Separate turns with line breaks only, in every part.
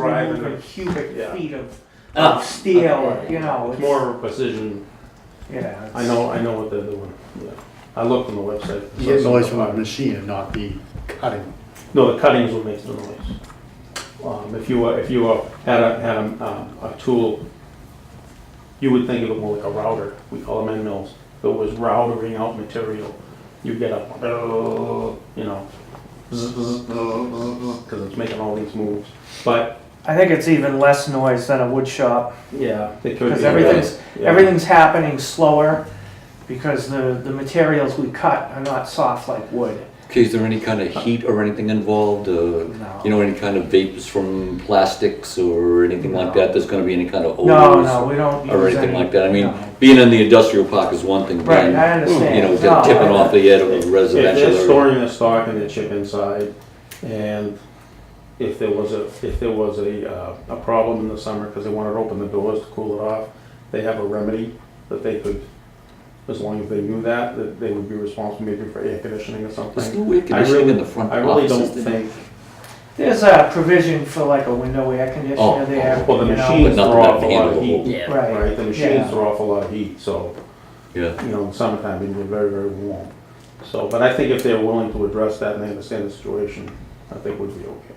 Right.
300 cubic
Yeah.
feet of,
Oh,
of steel,
okay.
you know.
It's more of a precision.
Yeah.
I know, I know what they're doing. Yeah. I looked on the website.
You get noise from the machine and not the cutting.
No, the cuttings will make the noise. Um, if you were, if you were, had a, had a, um, a tool, you would think of it more like a router. We call them end mills. If it was routering out material, you get up, oh, you know, because it's making all these moves. But,
I think it's even less noise than a wood shop
yeah, it could be.
because everything's
Yeah.
everything's happening slower because the the materials we cut are not soft like wood.
Okay, is there any kind of heat or anything involved? Uh,
No.
You know, any kind of vapors from plastics or anything like that? There's going to be any kind of odors
No, no, we don't use
or anything
any-
like that? I mean,
no.
being in the industrial park is one thing,
Right,
but
I understand.
you know,
No,
get tipping
I-
off the head of a
If
residential
they're
area.
storing their stock and their chip inside, and if there was a, if there was a, uh, a problem in the summer, because they wanted to open the doors to cool it off, they have a remedy that they could, as long as they knew that, that they would be responsible maybe for air conditioning or
There's
something.
no air conditioning in the front
I really
offices.
don't
there?
think,
There's a provision for like a window air
Oh,
conditioner there.
well, the
you know,
machines
But nothing
throw off a
that
lot of
handle.
heat,
Yeah.
Right.
right? The
Yeah.
machines throw off a lot of heat, so,
Yeah.
you know, in summertime, it can get very, very warm. So, but I think if they're willing to address that and they understand the situation, I think we'd be okay.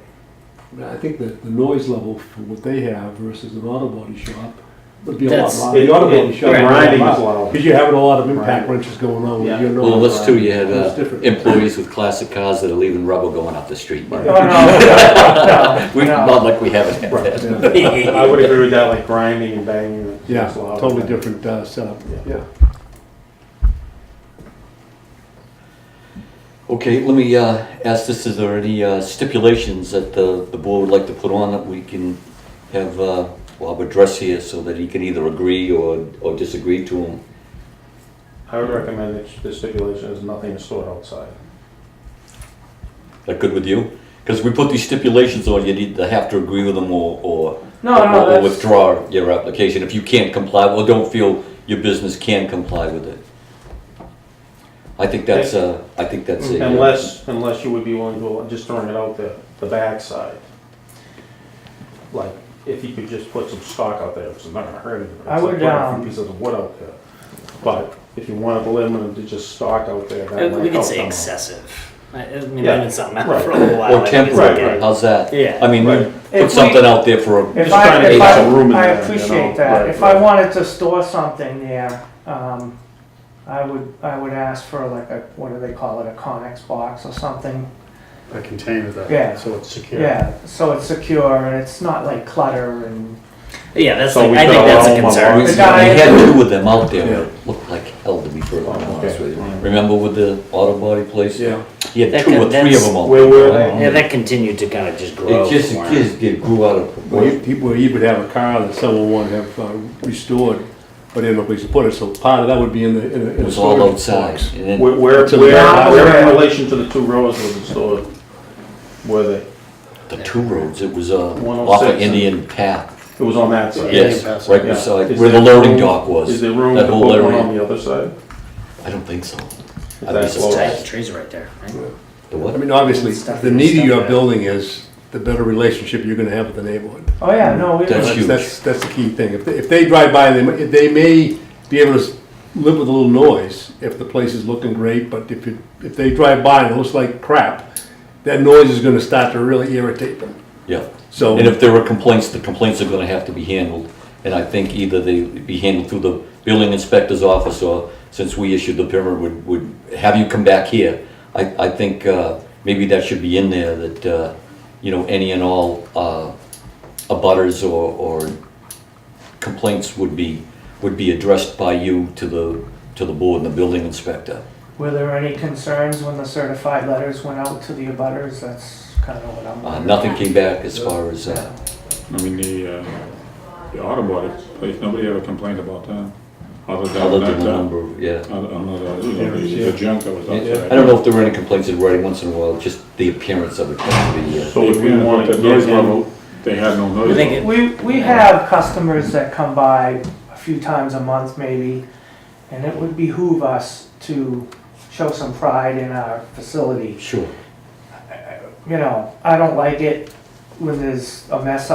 I mean, I think that the noise level for what they have versus an auto body shop would be a lot
That's-
louder. Um, The auto body shop.
Grinding is loud.
Because you're having a lot of
Right.
impact wrenches going on
Yeah.
with your noise.
Well, that's too, you have
It's
uh,
different.
employees with classic cars that are leaving rubber going up the street.
Oh, no, no,
We,
no.
not like we haven't had that.
Yeah,
I would agree with that, like grinding and banging. it's
Yeah,
loud.
totally different uh, setup.
Yeah.
Okay, let me uh, ask this, is there any uh, stipulations that the, the board would like to put on that we can have uh, Bob address here so that he can either agree or, or disagree to them?
I would recommend that the stipulation is nothing is stored outside.
That good with you? Because we put these stipulations on, you need to have to agree with them or, or
No,
or-
no,
or
that's.
withdraw your application if you can't comply, or don't feel your business can comply with it. I think that's a, I think that's a. uh,
Unless, unless you would be willing to, allow- just throwing it out the, the backside. Like, if you could just put some stock out there, it's not gonna hurt anything. It's
I would,
like putting a few
um,
Pieces of wood out there. But if you wanted to limit them to just stock out there, that
Uh,
might
We could
help
say
them out.
excessive. I I mean,
Yeah.
yeah. something out
Right.
for a little while.
Or
I think it's
temporary,
okay.
right.
how's that?
Yeah.
I mean,
Right.
If we-
put something out there for a
If
Just trying
I,
to
if
get
I,
some room in
I
there, you know?
appreciate that.
Right,
If I
right.
wanted to store something there, um, I would, I would ask for like a, what do they call it, a Conex box or something?
A container that,
Yeah.
so it's secure.
Yeah, so it's secure and it's not like clutter and,
Yeah, that's
So
like,
we
I
could
think that's
allow
a
them
concern.
We
The
we
guy-
had two of them out there,
Yeah.
that looked like hell to be perfectly
Oh,
honest
okay.
with you. Remember with the auto body place?
Yeah.
He had
That
two or
could-
three of
that's-
them out
Where
there.
were
I don't
they?
Yeah,
know.
that continued to kind of just grow.
It just, it
more.
just it grew out of
Well, you,
proportion.
people, you would have a car that someone wanted to have uh, restored, but they had no place to put it, so part of that would be in the, in a, in a.
It was all
storage
outside.
box.
And then-
Where, where,
It's a
where
lot.
where in relation to the two rows was it stored? Were they?
The two roads, it was, uh, off
106
of
and-
Indian Path,
It was on that side.
yes, right
oh Yeah.
beside,
Is
where the
there
loading
room-
dock was.
Is there room
that
to put
whole
one
area.
on the other side?
I don't think so.
Is
I'd be
that
surprised.
Tight,
close?
the trees are right there. Right?
The
I
what?
mean, obviously,
Stuff
the
and
neater
stuff,
your
yeah.
building is, the better relationship you're gonna have with the neighborhood.
oh yeah, no, we,
That's
That's,
huge.
that's, that's the key thing. If they, if they drive by, they, may- they may be able to s- live with a little noise if the place is looking great, but if it, if they drive by and it looks like crap, that noise is gonna start to really irritate them.
Yeah.
So,
And if there are complaints, the complaints are gonna have to be handled, and I think either they be handled through the building inspector's office, or since we issued the permit, would, would have you come back here. I, I think, uh, maybe that should be in there, that, uh, you know, any and all, uh, abutters or, or complaints would be, would be addressed by you to the, to the board and the building inspector.
were there any concerns when the certified letters went out to the abutters? That's kind of what I'm
Uh,
wondering.
nothing came back as far as, uh,
I mean, the, uh, the auto body place, nobody ever complained about that. Other
other than
than
the
that, uh,
number, of- yeah.
other, another, you
Yeah,
know, the
yeah.
the junk that was outside.
I don't know if there were any complaints in writing once in a while, just the appearance of it. the, uh,
So would
If
we
we
want
want
to
the
get
noise
him,
level, they had no noise
I think
level.
it-
We, we have customers that come by a few times a month maybe, and it would behoove us to show some pride in our facility.
Sure.
You know, I don't like it when there's a mess